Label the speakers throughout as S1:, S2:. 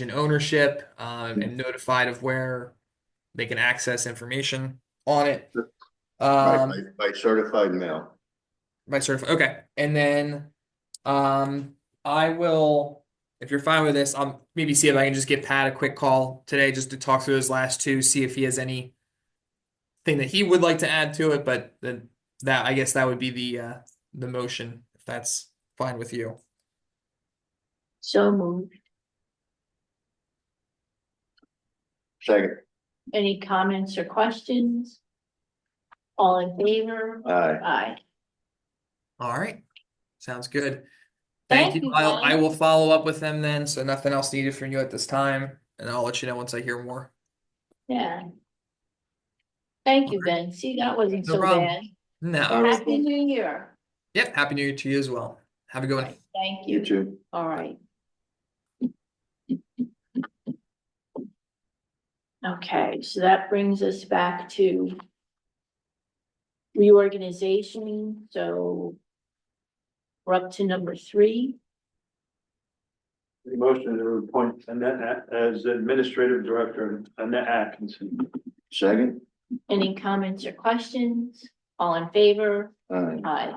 S1: and ownership um, and notified of where they can access information on it.
S2: By,
S1: Um,
S2: by- by certified mail.
S1: by certified. Okay, and then um, I will, if you're fine with this, I'll maybe see if I can just get Pat a quick call today just to talk through those last two, see if he has any thing that he would like to add to it. But then that I guess that would be the uh, the motion if that's fine with you.
S3: So moved.
S2: Second,
S3: Any comments or questions? All in favor?
S2: aye.
S3: Aye.
S1: All right, sounds good.
S3: Thank
S1: Thank you,
S3: you,
S1: Kyle. I
S3: Kyle.
S1: will follow up with them then, so nothing else needed from you at this time, and I'll let you know once I hear more.
S3: Yeah. Thank you, Ben. See, that wasn't
S1: No
S3: so
S1: problem.
S3: bad.
S1: No,
S2: All right.
S3: Happy New Year.
S1: yep, happy new year to you as well. Have a good one.
S3: Thank
S2: You
S3: you.
S2: too.
S3: All right. Okay, so that brings us back to reorganization, so we're up to number three.
S4: The motion to appoint Annette A- as Administrative Director, Annette Atkinson.
S2: Second,
S3: Any comments or questions? All in favor?
S2: aye.
S3: Aye.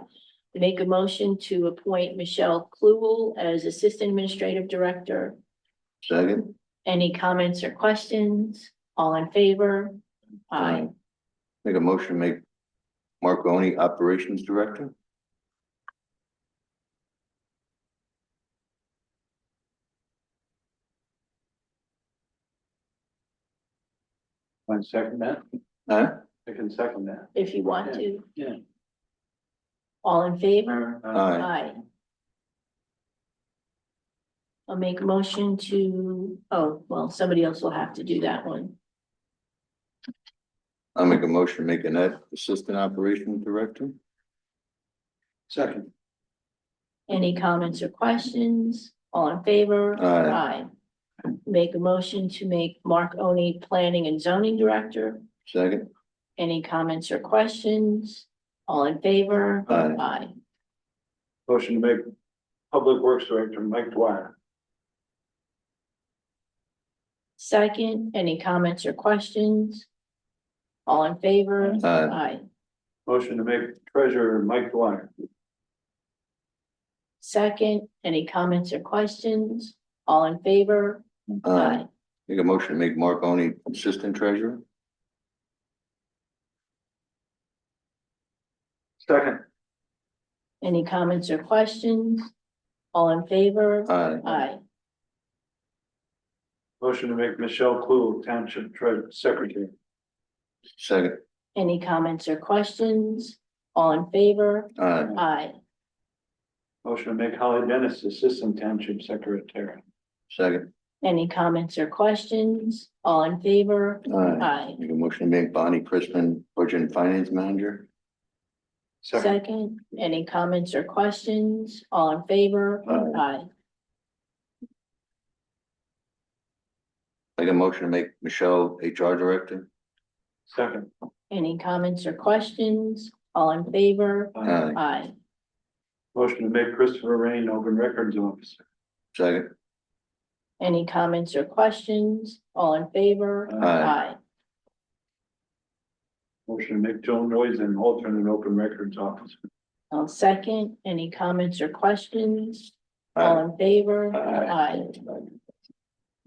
S3: Make a motion to appoint Michelle Kluel as Assistant Administrative Director.
S2: Second,
S3: Any comments or questions? All in favor? Aye.
S2: make a motion, to make Marconi Operations Director?
S4: I second that.
S2: Huh?
S4: I can second that.
S3: if you want to.
S4: Yeah.
S3: All in favor?
S4: Uh,
S2: Aye.
S3: Aye. I'll make a motion to, oh, well, somebody else will have to do that one.
S2: I'll make a motion, to make Annette Assistant Operations Director?
S4: Second,
S3: Any comments or questions? All in favor?
S2: Aye.
S3: Aye. Make a motion to make Mark Oni Planning and Zoning Director.
S2: Second,
S3: Any comments or questions? All in favor?
S2: Aye.
S3: Aye.
S4: motion to make Public Works Director Mike Dwyer.
S3: Second, any comments or questions? All in favor?
S2: Aye.
S3: Aye.
S4: Motion to make Treasurer Mike Dwyer.
S3: Second, any comments or questions? All in favor?
S2: aye. Make a motion, to make Marconi Assistant Treasurer?
S4: Second,
S3: Any comments or questions? All in favor?
S2: Aye.
S3: Aye.
S4: motion to make Michelle Clue Township Treasurer Secretary.
S2: Second,
S3: Any comments or questions? All in favor?
S2: aye.
S3: Aye.
S4: Motion to make Holly Dennis Assistant Township Secretary.
S2: Second,
S3: Any comments or questions? All in favor?
S2: aye.
S3: Aye.
S2: Make a motion, to make Bonnie Crispin Budget and Finance Manager?
S4: Second,
S3: Second, any comments or questions? All in favor?
S2: Aye.
S3: Aye.
S2: Make a motion, to make Michelle HR Director?
S4: second.
S3: Any comments or questions? All in favor?
S2: Aye.
S3: Aye.
S4: Motion to make Christopher Rain Open Records Officer.
S2: Second,
S3: Any comments or questions? All in favor?
S2: Aye.
S3: Aye.
S4: Motion to make Joan Noyes an alternate Open Records Officer.
S3: I'll second. Any comments or questions?
S2: aye.
S3: All in favor?
S4: Aye.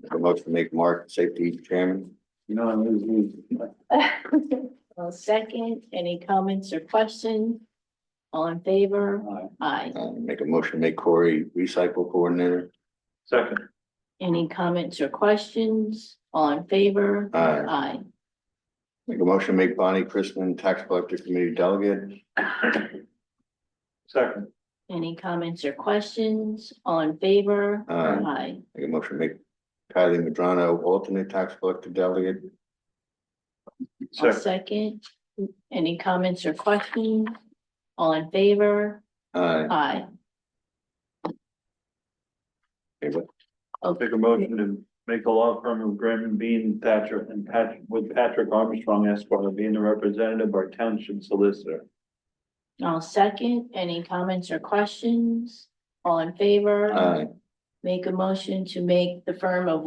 S2: Make a motion, to make Mark Safety Chairman?
S4: You know, I always lose.
S3: I'll second. Any comments or questions? All in favor?
S4: Aye.
S3: Aye.
S2: Uh, make a motion, to make Corey recycle coordinator.
S4: Second,
S3: Any comments or questions? All in favor?
S2: Uh,
S3: Aye.
S2: make a motion, to make Bonnie Crispin tax collector committee delegate.
S4: second,
S3: Any comments or questions? All in favor?
S2: Aye.
S3: Aye.
S2: Make a motion, to make Kylie Madrano alternate tax collector delegate.
S3: I'll
S4: second,
S3: second. Any comments or questions? All in favor?
S2: Uh,
S3: Aye.
S2: okay, what-
S4: take a motion to make the law firm of Graham and Bean Thatcher and Patrick, with Patrick Armstrong Esquire being the representative or township solicitor.
S3: I'll second. Any comments or questions? All in favor?
S2: uh,
S3: Make a motion to make the firm of